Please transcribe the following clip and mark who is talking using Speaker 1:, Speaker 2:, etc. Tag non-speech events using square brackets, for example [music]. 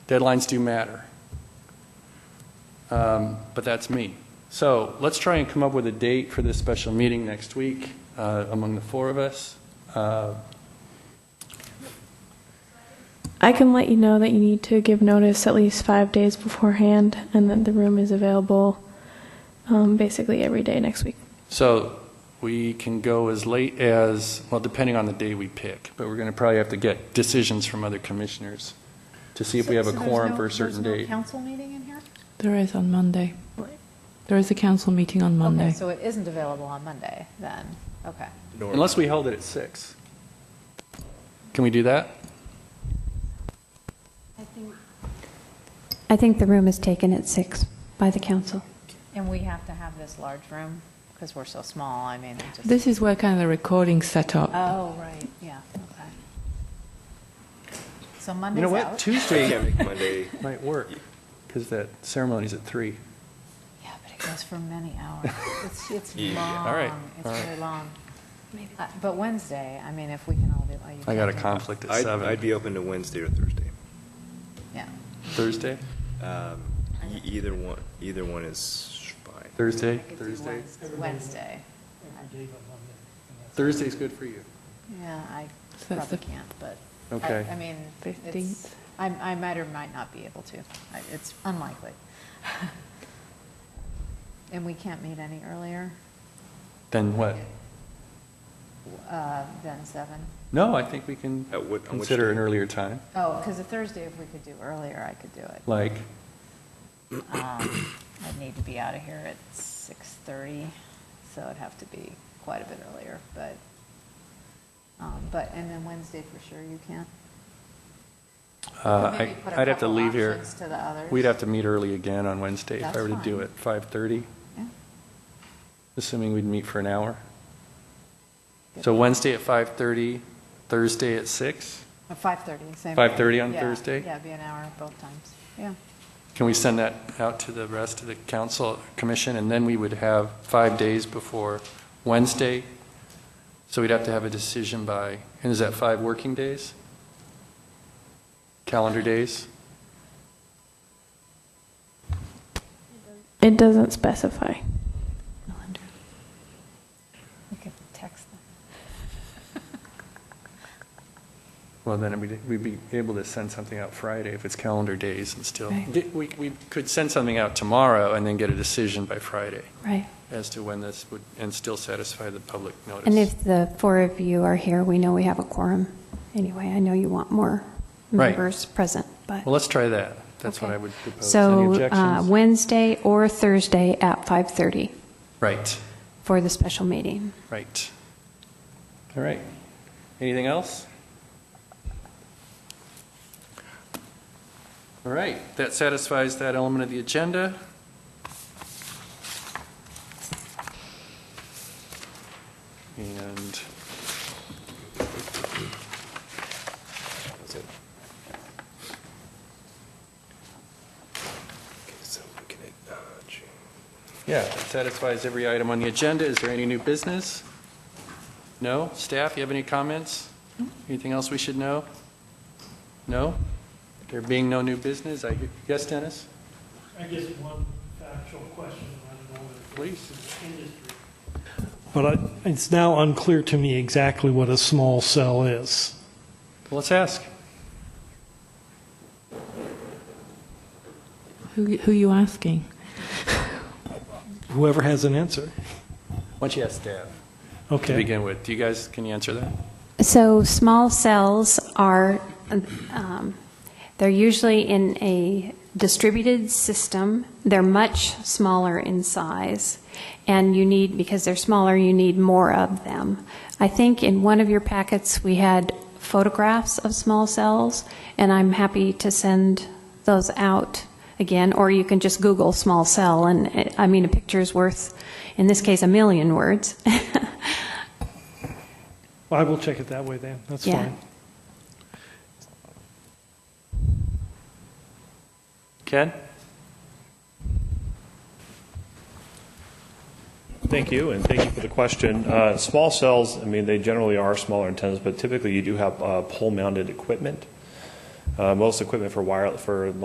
Speaker 1: Deadlines do matter. Um, But that's me. So let's try and come up with a date for this special meeting next week uh, among the four of us. Uh,
Speaker 2: I can let you know that you need to give notice at least five days beforehand and that the room is available um, basically every day next week.
Speaker 1: So we can go as late as, well, depending on the day we pick, but we're going to probably have to get decisions from other commissioners to see if we have a
Speaker 3: So- so there's
Speaker 1: quorum
Speaker 3: no-
Speaker 1: for a certain
Speaker 3: there's no
Speaker 1: date.
Speaker 3: council meeting in here?
Speaker 4: There is on Monday.
Speaker 3: Right.
Speaker 4: There is a council meeting on
Speaker 3: Okay,
Speaker 4: Monday.
Speaker 3: so it isn't available on Monday, then, okay.
Speaker 1: Unless we held it at six. Can we do that?
Speaker 5: I think the room is taken at six by the council.
Speaker 3: And we have to have this large room, because we're so small, I mean, it just.
Speaker 4: This is where kind of the recording set up.
Speaker 3: Oh, right, yeah, okay. So
Speaker 1: You
Speaker 3: Monday's
Speaker 1: know
Speaker 3: out.
Speaker 1: what,
Speaker 3: [laughs]
Speaker 1: Tuesday
Speaker 6: Monday.
Speaker 1: might work, because that ceremony's at three.
Speaker 3: Yeah, but it goes for many
Speaker 1: [laughs]
Speaker 3: hours. It's, it's
Speaker 6: Yeah.
Speaker 3: long.
Speaker 1: All right,
Speaker 3: It's
Speaker 1: all right.
Speaker 3: really long. Uh, But Wednesday, I mean, if we can all do. oh, you
Speaker 1: I got a
Speaker 3: can't
Speaker 1: conflict at
Speaker 6: I'd, I'd
Speaker 1: seven.
Speaker 6: be open to Wednesday or Thursday.
Speaker 3: do- Yeah.
Speaker 1: Thursday?
Speaker 6: Um, e- Either one, either one is fine.
Speaker 1: Thursday?
Speaker 3: I could do
Speaker 1: Thursday?
Speaker 3: Wednes- Wednesday.
Speaker 1: Thursday's good for you.
Speaker 3: Yeah, I
Speaker 4: So that's
Speaker 3: probably
Speaker 4: the-
Speaker 3: can't, but. I-
Speaker 1: Okay.
Speaker 3: I mean, it's,
Speaker 4: 15th.
Speaker 3: I, I might or might not be able to. I- It's unlikely. [laughs] And we can't meet any earlier
Speaker 1: Then what?
Speaker 3: uh, than seven.
Speaker 1: No, I think we can
Speaker 6: At what- on which
Speaker 1: consider an
Speaker 6: day?
Speaker 1: earlier time,
Speaker 3: Oh, because a Thursday, if we could do earlier, I could do it.
Speaker 1: like,
Speaker 3: Um, I'd need to be out of here at 6:30, so it'd have to be quite a bit earlier, but, um, but, and then Wednesday for sure you can.
Speaker 1: uh,
Speaker 3: Maybe
Speaker 1: I-
Speaker 3: put a
Speaker 1: I'd have to
Speaker 3: couple
Speaker 1: leave here.
Speaker 3: options to the others.
Speaker 1: We'd have to meet early again on Wednesday if
Speaker 3: That's
Speaker 1: I were to do
Speaker 3: fine.
Speaker 1: it, 5:30,
Speaker 3: Yeah.
Speaker 1: assuming we'd meet for an hour. So Wednesday at 5:30, Thursday at six.
Speaker 3: Or 5:30, same.
Speaker 1: 5:30
Speaker 3: thing.
Speaker 1: on
Speaker 3: Yeah,
Speaker 1: Thursday?
Speaker 3: Yeah, it'd be an hour both times, yeah.
Speaker 1: Can we send that out to the rest of the council, commission, and then we would have five days before Wednesday? So we'd have to have a decision by, and is that five working days? Calendar days?
Speaker 2: It doesn't specify.
Speaker 3: We could text them.
Speaker 1: Well, then we'd we'd be able to send something out Friday if it's calendar days and still.
Speaker 4: Right.
Speaker 1: Di- We, we could send something out tomorrow and then get a decision by Friday
Speaker 5: Right.
Speaker 1: as to when this would, and still satisfy the public notice.
Speaker 5: And if the four of you are here, we know we have a quorum. Anyway, I know you want more
Speaker 1: Right.
Speaker 5: members present, but.
Speaker 1: Well, let's try that. That's what
Speaker 5: Okay.
Speaker 1: I would propose. Any
Speaker 5: So uh,
Speaker 1: objections?
Speaker 5: Wednesday or Thursday at 5:30
Speaker 1: Right,
Speaker 5: for the special meeting.
Speaker 1: right. All right. Anything else? All right, that satisfies that element of the agenda. And
Speaker 6: That's it. Okay, so looking at, uh, June.
Speaker 1: Yeah, that satisfies every item on the agenda. Is there any new business? No? Staff, you have any comments? Anything else we should know? No? There being no new business, I, yes, Dennis?
Speaker 7: I guess one factual question, I don't know whether
Speaker 1: Please.
Speaker 7: it's in the industry. But I- it's now unclear to me exactly what a small cell is.
Speaker 1: Well, Let's ask.
Speaker 4: Who, who are you asking?
Speaker 7: Whoever has an answer.
Speaker 1: Why don't you ask staff to
Speaker 7: Okay.
Speaker 1: begin with? Do you guys, can you answer that?
Speaker 5: So small cells are, um, they're usually in a distributed system. They're much smaller in size, and you need, because they're smaller, you need more of them. I think in one of your packets, we had photographs of small cells, and I'm happy to send those out again, or you can just Google small cell, and, eh, I mean, a picture's worth, in this case, a million words. [laughs]
Speaker 7: Well, I will check it that way then. That's
Speaker 5: Yeah.
Speaker 7: fine.
Speaker 1: Ken?
Speaker 8: Thank you, and thank you for the question. Uh, Small cells, I mean, they generally are smaller antennas, but typically you do have uh, pole-mounted equipment. Uh, Most equipment for wireless, for